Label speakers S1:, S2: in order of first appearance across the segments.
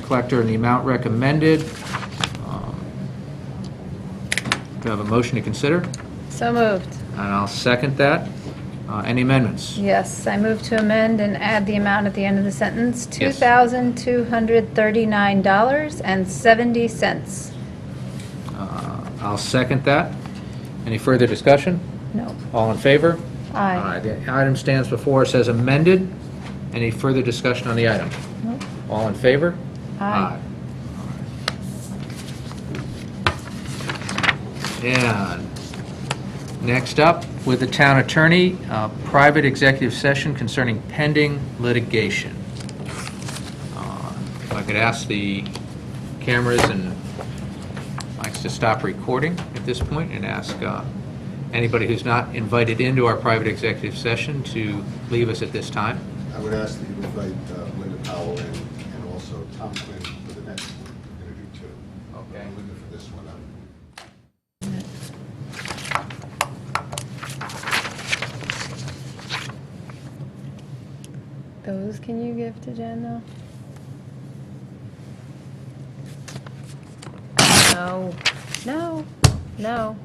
S1: collector in the amount recommended. Um, Do I have a motion to consider?
S2: So moved.
S1: And I'll second that. Uh, Any amendments?
S2: Yes, I move to amend and add the amount at the end of the sentence,
S1: Yes.
S2: $2,239.70.
S1: Uh, I'll second that. Any further discussion?
S2: No,
S1: All in favor?
S2: aye.
S1: The item stands before us as amended. Any further discussion on the item?
S2: Nope.
S1: All in favor?
S2: Aye.
S1: Aye. And next up, with the town attorney, uh, private executive session concerning pending litigation. Uh, If I could ask the cameras and mics to stop recording at this point and ask uh, anybody who's not invited into our private executive session to leave us at this time.
S3: I would ask that you invite uh, Linda Powell in and also Tom Quinn for the next one. We're going to do two.
S1: Okay.
S3: Linda for this one. uh, I'm-
S2: Those can you give to Jen, though? No, no, no.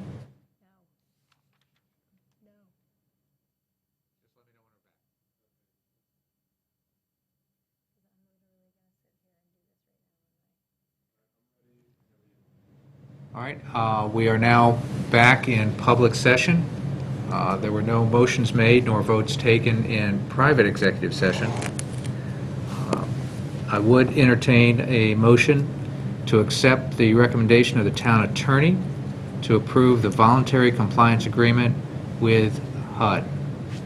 S1: All right, uh, we are now back in public session. Uh, There were no motions made nor votes taken in private executive session. Um, I would entertain a motion to accept the recommendation of the town attorney to approve the voluntary compliance agreement with HUD.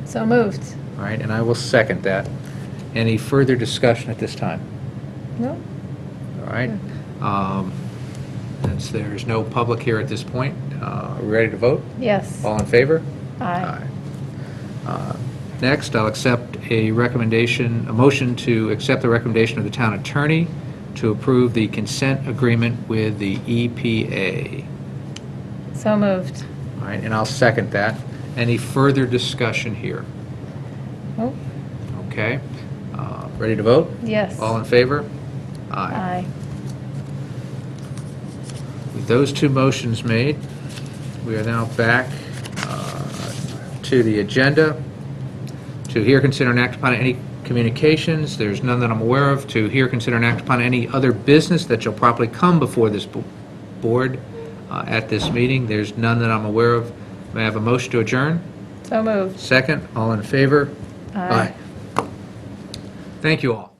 S2: So moved.
S1: All right, and I will second that. Any further discussion at this time?
S2: No,
S1: All right. Um, Since there's no public here at this point, uh, are we ready to vote?
S2: yes,
S1: All in favor?
S2: aye.
S1: Uh, Next, I'll accept a recommendation, a motion to accept the recommendation of the town attorney to approve the consent agreement with the E EPA.
S2: So moved.
S1: All right, and I'll second that. Any further discussion here?
S2: Oh,
S1: Okay. Uh, Ready to vote?
S2: yes.
S1: All in favor?
S2: Aye.
S1: With those two motions made, we are now back uh, to the agenda. To hear, consider, and act upon any communications, there's none that I'm aware of. To hear, consider, and act upon any other business that shall properly come before this bo- board uh, at this meeting, there's none that I'm aware of. May I have a motion to adjourn?
S2: So moved.
S1: Second, all in favor?
S2: Aye.
S1: Thank you all.